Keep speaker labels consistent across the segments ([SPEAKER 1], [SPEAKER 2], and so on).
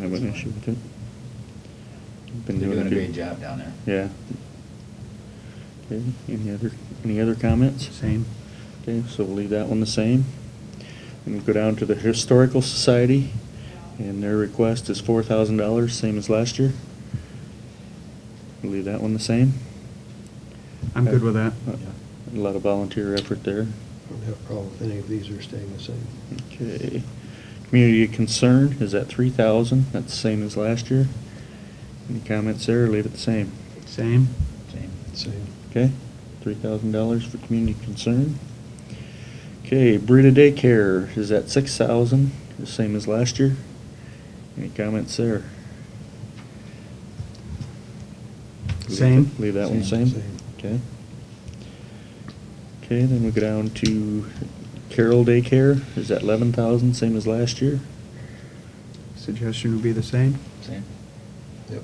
[SPEAKER 1] have an issue with it. Been
[SPEAKER 2] They're doing a
[SPEAKER 1] it.
[SPEAKER 2] great job down there.
[SPEAKER 1] Yeah. Okay, any other, any other comments?
[SPEAKER 3] Same.
[SPEAKER 1] Okay, so we'll leave that one the same. And we'll go down to the Historical Society, and their request is four thousand dollars, same as last year. We'll Leave that one the same.
[SPEAKER 3] I'm good with that.
[SPEAKER 1] Uh, A lot of volunteer effort there.
[SPEAKER 4] Don't have a problem with any of these are staying the same.
[SPEAKER 1] Okay. Community of Concern is at three thousand, that's the same as last year. Any comments there, or leave it the same?
[SPEAKER 3] Same.
[SPEAKER 2] Same.
[SPEAKER 4] Same.
[SPEAKER 1] Okay, three thousand dollars for community concern. Okay, Brita Daycare is at six thousand, the same as last year. Any comments there? Leave
[SPEAKER 3] Same.
[SPEAKER 1] that- Leave that one
[SPEAKER 2] Same,
[SPEAKER 1] same?
[SPEAKER 4] same.
[SPEAKER 1] Okay. Okay, then we go down to Carroll Daycare is at eleven thousand, same as last year.
[SPEAKER 3] Suggestion would be the same.
[SPEAKER 2] Same.
[SPEAKER 4] Yep.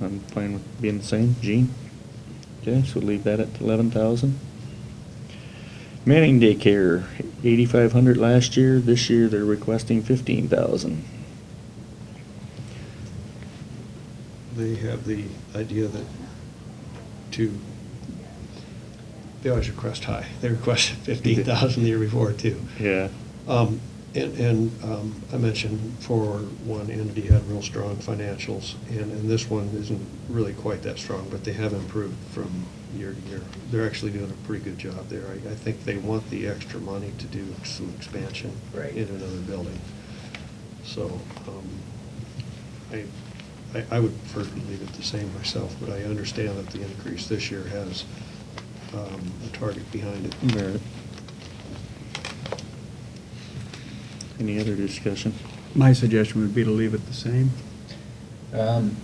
[SPEAKER 1] I'm fine with being the same, Gene. Okay, so leave that at eleven thousand. Manning Daycare, eighty-five hundred last year, this year they're requesting fifteen thousand.
[SPEAKER 4] They have the idea that to, they always request high. They requested fifteen thousand the year before too.
[SPEAKER 1] Yeah.
[SPEAKER 4] Um, And, and um, I mentioned for one entity had real strong financials, and, and this one isn't really quite that strong, but they have improved from year to year. They're actually doing a pretty good job there. I, I think they want the extra money to do some expansion
[SPEAKER 2] Right.
[SPEAKER 4] in another building. So um, I, I- I would prefer to leave it the same myself, but I understand that the increase this year has um, a target behind it.
[SPEAKER 1] Merit. Any other discussion?
[SPEAKER 3] My suggestion would be to leave it the same.
[SPEAKER 2] Um,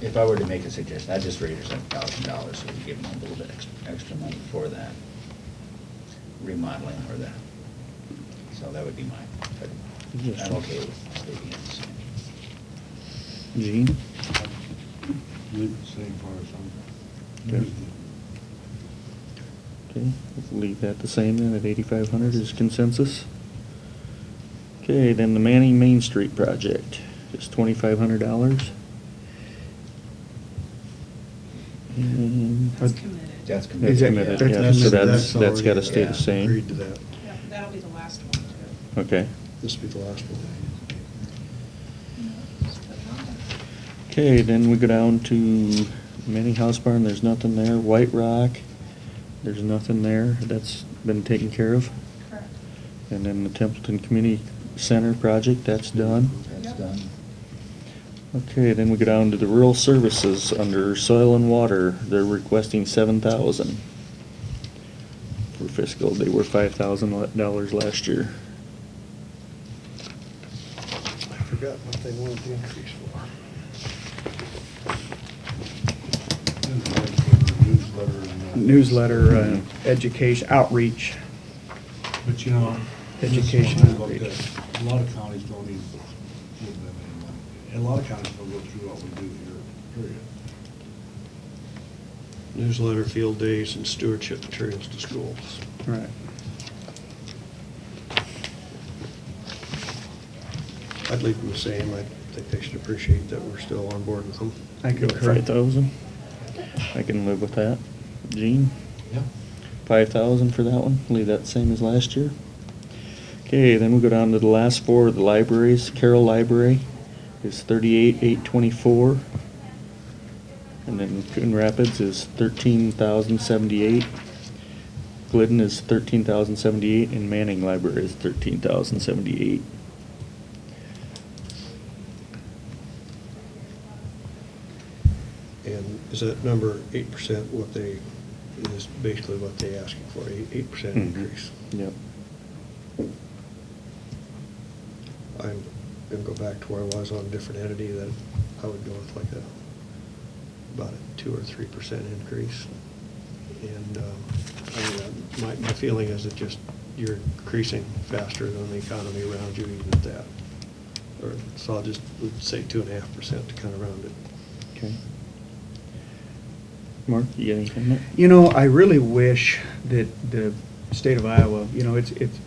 [SPEAKER 2] If I were to make a suggestion, I'd just raise it seven thousand dollars, so we give them a little bit ex- extra money for that remodeling or that. So that would be mine. but I'm okay with leaving it the same.
[SPEAKER 1] Gene?
[SPEAKER 4] Same
[SPEAKER 1] Okay. Okay, leave that the same then at eighty-five hundred is consensus. Okay, then the Manning Main Street project is twenty-five hundred dollars.
[SPEAKER 3] That's
[SPEAKER 5] committed.
[SPEAKER 2] That's committed.
[SPEAKER 1] That's
[SPEAKER 3] Is that-
[SPEAKER 1] committed,
[SPEAKER 3] that's-
[SPEAKER 1] yeah, so
[SPEAKER 3] that's-
[SPEAKER 1] that's, that's
[SPEAKER 4] already-
[SPEAKER 1] gotta stay
[SPEAKER 2] yeah,
[SPEAKER 1] the same.
[SPEAKER 4] Agreed to that.
[SPEAKER 5] Yeah, That'll be the last one.
[SPEAKER 1] Okay.
[SPEAKER 4] This will be the last one.
[SPEAKER 1] Okay, then we go down to Manning House Barn, there's nothing there. White Rock, there's nothing there. That's been taken care of.
[SPEAKER 5] Correct.
[SPEAKER 1] And then the Templeton Community Center project, that's done.
[SPEAKER 2] That's done.
[SPEAKER 1] Okay, then we go down to the rural services under soil and water. They're requesting seven thousand for fiscal. They were five thousand dollars last year.
[SPEAKER 4] I forgot what they wanted the increase for. Newsletter
[SPEAKER 3] Newsletter, uh, education, outreach.
[SPEAKER 6] But you know. this is
[SPEAKER 3] Education
[SPEAKER 6] one I looked
[SPEAKER 3] outreach.
[SPEAKER 6] at. A lot of counties don't even give them any money. And a lot of counties don't go through what we do here, period.
[SPEAKER 4] Newsletter, field days, and stewardship materials to schools.
[SPEAKER 3] Right.
[SPEAKER 4] I'd leave them the same. I think they should appreciate that we're still on board with them.
[SPEAKER 3] I concur.
[SPEAKER 1] Five thousand? I can live with that. Gene?
[SPEAKER 2] Yeah.
[SPEAKER 1] Five thousand for that one, leave that same as last year. Okay, then we go down to the last four, the libraries, Carroll Library is thirty-eight, eight twenty-four. And then Coon Rapids is thirteen thousand seventy-eight. Glidden is thirteen thousand seventy-eight, and Manning Library is thirteen thousand seventy-eight.
[SPEAKER 4] And is that number eight percent what they, is basically what they asking for, eight percent
[SPEAKER 1] Hmm.
[SPEAKER 4] increase?
[SPEAKER 1] Yep.
[SPEAKER 4] I'm gonna go back to where I was on a different entity that I would go with like a, about a two or three percent increase. And, um, I mean, uh, my, my feeling is that just, you're increasing faster than the economy around you even at that. Or, so I'll just, would say two and a half percent to kind of round it.
[SPEAKER 1] Okay. Mark, you got anything?
[SPEAKER 3] You know, I really wish that the state of Iowa, you know, it's, it's